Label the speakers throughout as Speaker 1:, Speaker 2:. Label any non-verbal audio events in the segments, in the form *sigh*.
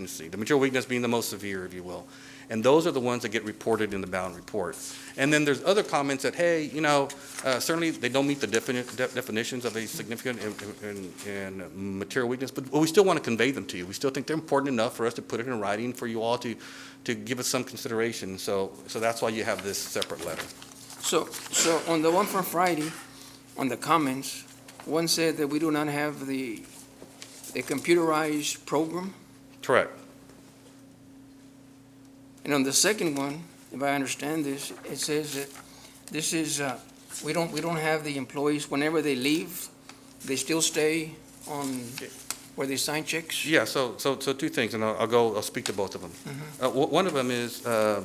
Speaker 1: contingency, the material weakness being the most severe, if you will. And those are the ones that get reported in the bound report. And then there's other comments that, hey, you know, uh, certainly they don't meet the defini- de- definitions of a significant and- and- and material weakness, but we still want to convey them to you. We still think they're important enough for us to put it in writing for you all to, to give us some consideration. So, so that's why you have this separate letter.
Speaker 2: So, so on the one from Friday, on the comments, one said that we do not have the, the computerized program.
Speaker 1: Correct.
Speaker 2: And on the second one, if I understand this, it says that this is, uh, we don't, we don't have the employees, whenever they leave, they still stay on where they sign checks?
Speaker 1: Yeah, so, so, so two things, and I'll, I'll go, I'll speak to both of them.
Speaker 2: Mm-hmm.
Speaker 1: Uh, o- one of them is, uh,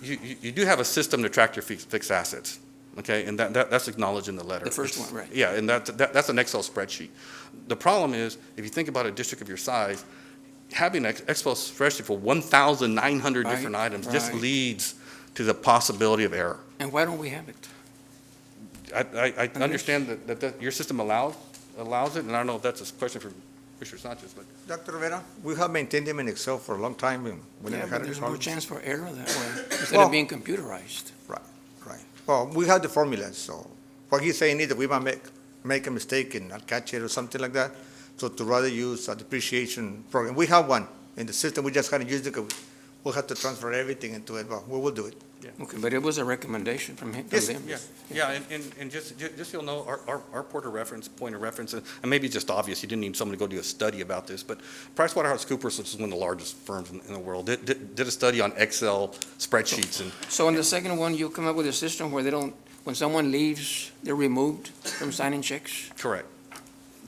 Speaker 1: you, you, you do have a system to track your fixed, fixed assets, okay? And that, that, that's acknowledged in the letter.
Speaker 2: The first
Speaker 1: It's-
Speaker 2: one, right.
Speaker 1: Yeah, and that, that, that's an Excel spreadsheet. The problem is, if you think about a district of your size, having an Excel spreadsheet for one thousand nine hundred
Speaker 2: Right,
Speaker 1: different items just
Speaker 2: right.
Speaker 1: leads to the possibility of error.
Speaker 2: And why don't we have it?
Speaker 1: I, I, I understand that, that, that your system allows, allows it, and I don't know if that's a question for Commissioner Sanchez, but
Speaker 3: Dr. Rivera, we have maintained them in Excel for a long time, and we
Speaker 2: Yeah,
Speaker 3: never had
Speaker 2: but
Speaker 3: any
Speaker 2: there's more
Speaker 3: problems.
Speaker 2: chance for error that
Speaker 3: *laughs*
Speaker 2: way, instead
Speaker 3: Well-
Speaker 2: of being computerized.
Speaker 3: Right. Well, we have the formulas, so what he's saying is that we might make, make a mistake and not catch it or something like that. So to rather use a depreciation program, we have one in the system, we just haven't used it, 'cause we'll have to transfer everything into it, but we will do it.
Speaker 2: Okay, but it was a recommendation from him, from
Speaker 3: Yes,
Speaker 2: them.
Speaker 1: Yeah, yeah, and, and, and just, ju- just so you'll know, our, our, our port of reference, point of reference, and and maybe it's just obvious, you didn't need someone to go do a study about this, but PricewaterhouseCoopers, which is one of the largest firms in, in the world, did, did, did a study on Excel spreadsheets and,
Speaker 2: So in the second one, you come up with a system where they don't, when someone leaves, they're removed from signing checks?
Speaker 1: correct.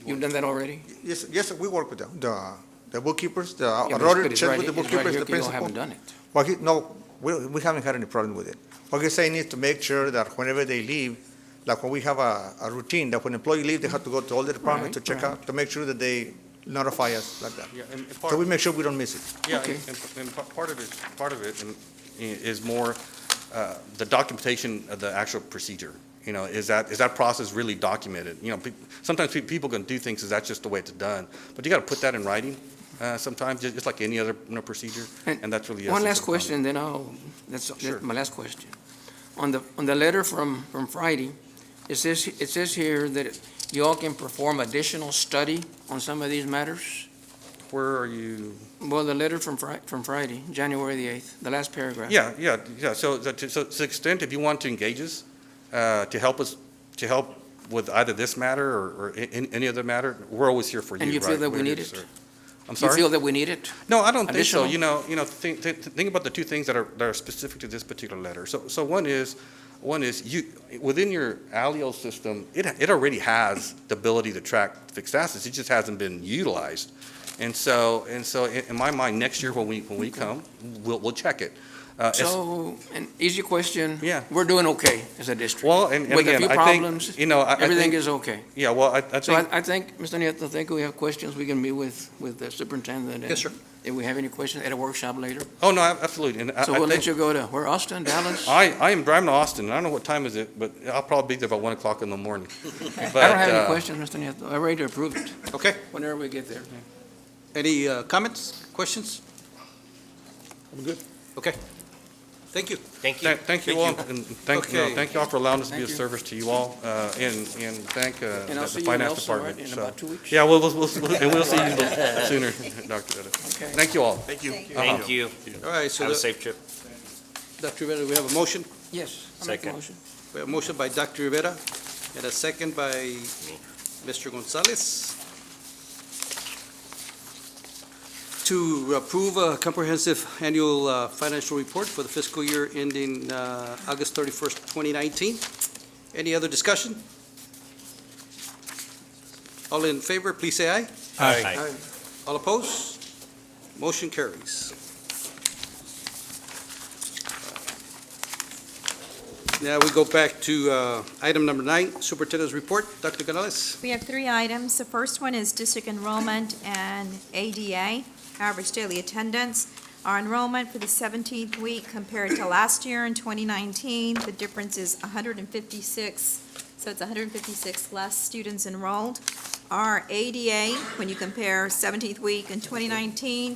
Speaker 2: You've done that already?
Speaker 3: Yes, yes, we work with the, the, the bookkeepers, the,
Speaker 2: Yeah,
Speaker 3: our
Speaker 2: but it's-
Speaker 3: auditor
Speaker 2: but it's
Speaker 3: Uh, check
Speaker 2: right
Speaker 3: with the
Speaker 2: here- it's right
Speaker 3: bookkeepers,
Speaker 2: here
Speaker 3: the
Speaker 2: 'cause you all
Speaker 3: principal.
Speaker 2: haven't done it.
Speaker 3: Well, he, no, we, we haven't had any problem with it. What he's saying is to make sure that whenever they leave, like when we have a, a routine, that when employee leave, they have to go to all the departments to
Speaker 2: Right,
Speaker 3: check
Speaker 2: right.
Speaker 3: out, to make sure that they notify us like that.
Speaker 1: Yeah, and and part,
Speaker 3: So we make sure we don't miss it.
Speaker 1: yeah,
Speaker 2: okay.
Speaker 1: and, and- and pa- part of it, part of it and- i- is more, uh, the documentation of the actual procedure. You know, is that, is that process really documented? You know, pe- sometimes pe- people can do things, is that's just the way it's done? But you gotta put that in writing, uh, sometimes, ju- just like any other, you know, procedure,
Speaker 2: And
Speaker 1: and that's really. the
Speaker 2: One
Speaker 1: essence of
Speaker 2: last
Speaker 1: the problem.
Speaker 2: question, then I'll, that's,
Speaker 1: Sure.
Speaker 2: that's my last question. On the, on the letter from, from Friday, it says, it says here that you all can perform additional study on some of these matters?
Speaker 1: Where are you?
Speaker 2: Well, the letter from Fri- from Friday, January the eighth, the last paragraph.
Speaker 1: Yeah, yeah, yeah, so, so to so to the extent, if you want to engage us, uh, to help us, to help with either this matter or, or a- any, any other matter, we're always here for you,
Speaker 2: And you feel
Speaker 1: right,
Speaker 2: that we
Speaker 1: where
Speaker 2: need
Speaker 1: is,
Speaker 2: it?
Speaker 1: or- I'm
Speaker 2: You
Speaker 1: sorry?
Speaker 2: feel that we need it?
Speaker 1: No, I don't think so.
Speaker 2: Additional?
Speaker 1: You know, you know, think, think, think about the two things that are, that are specific to this particular letter. So, so one is, one is you, within your allele system, it, it already has the ability to track fixed assets. It just hasn't been utilized. And so, and so in, in my mind, next year when we, when we come, we'll, we'll check it. Uh, it's-
Speaker 2: So, an easy question.
Speaker 1: Yeah.
Speaker 2: We're doing okay as a district.
Speaker 1: Well, and, and
Speaker 2: With a
Speaker 1: again,
Speaker 2: few
Speaker 1: I
Speaker 2: problems,
Speaker 1: think, you know, I, I
Speaker 2: everything
Speaker 1: think,
Speaker 2: is okay.
Speaker 1: yeah, well, I, I
Speaker 2: So I,
Speaker 1: think,
Speaker 2: I think, Mr. Nieto, I think we have questions we can meet with, with the superintendent. and
Speaker 3: Yes, sir.
Speaker 2: If we have any questions at a workshop later.
Speaker 1: oh, no, ab- absolutely. And I-
Speaker 2: So
Speaker 1: I
Speaker 2: we'll
Speaker 1: think- Uh,
Speaker 2: let you go to, where, Austin, Dallas? I
Speaker 1: I, I am driving to Austin. and I don't know what time is it, but I'll probably be there by one o'clock in the
Speaker 2: *laughs*
Speaker 1: morning. uh, I
Speaker 2: don't have any questions, Mr. Nieto. I'm ready to approve it
Speaker 4: Okay,
Speaker 2: whenever we get there.
Speaker 4: any uh, comments, questions? I'm good. Okay, thank you. Thank
Speaker 1: Thank thank you all, and thank, you know,
Speaker 4: Okay.
Speaker 1: thank you all for allowing us to be of
Speaker 2: Thank you.
Speaker 1: service to you all, uh, and, and thank uh,
Speaker 2: And
Speaker 1: the
Speaker 2: I'll see
Speaker 1: the
Speaker 2: you in
Speaker 1: finance
Speaker 2: Elsa, right,
Speaker 1: department.
Speaker 2: in
Speaker 1: so-
Speaker 2: about two weeks?
Speaker 1: Yeah, we'll, we'll, we'll- and we'll see you *laughs* sooner, Dr. Etta.
Speaker 2: Okay.
Speaker 1: Thank you all.
Speaker 5: Thank you.
Speaker 1: Uh-huh.
Speaker 6: Thank you.
Speaker 4: All right, so,
Speaker 6: Have a
Speaker 4: the-
Speaker 6: safe trip.
Speaker 4: Dr. Rivera, we have a motion,
Speaker 2: Yes, I'll make a
Speaker 6: Second.
Speaker 2: motion.
Speaker 4: we have a motion by Dr. Rivera, and a second by Mr. Gonzalez to approve a comprehensive annual uh, financial report for the fiscal year ending uh, August 31st, 2019. Any other discussion? All in favor, please say aye.
Speaker 6: Aye.
Speaker 4: All opposed? Motion carries. Now we go back to uh, item number nine, Superintendent's Report. Dr. Canales?
Speaker 5: We have three items. The first one is district enrollment and ADA, average daily attendance. Our enrollment for the 17th week compared to last year in 2019, the difference is 156, so it's 156 less students enrolled. Our ADA, when you compare 17th week in 2019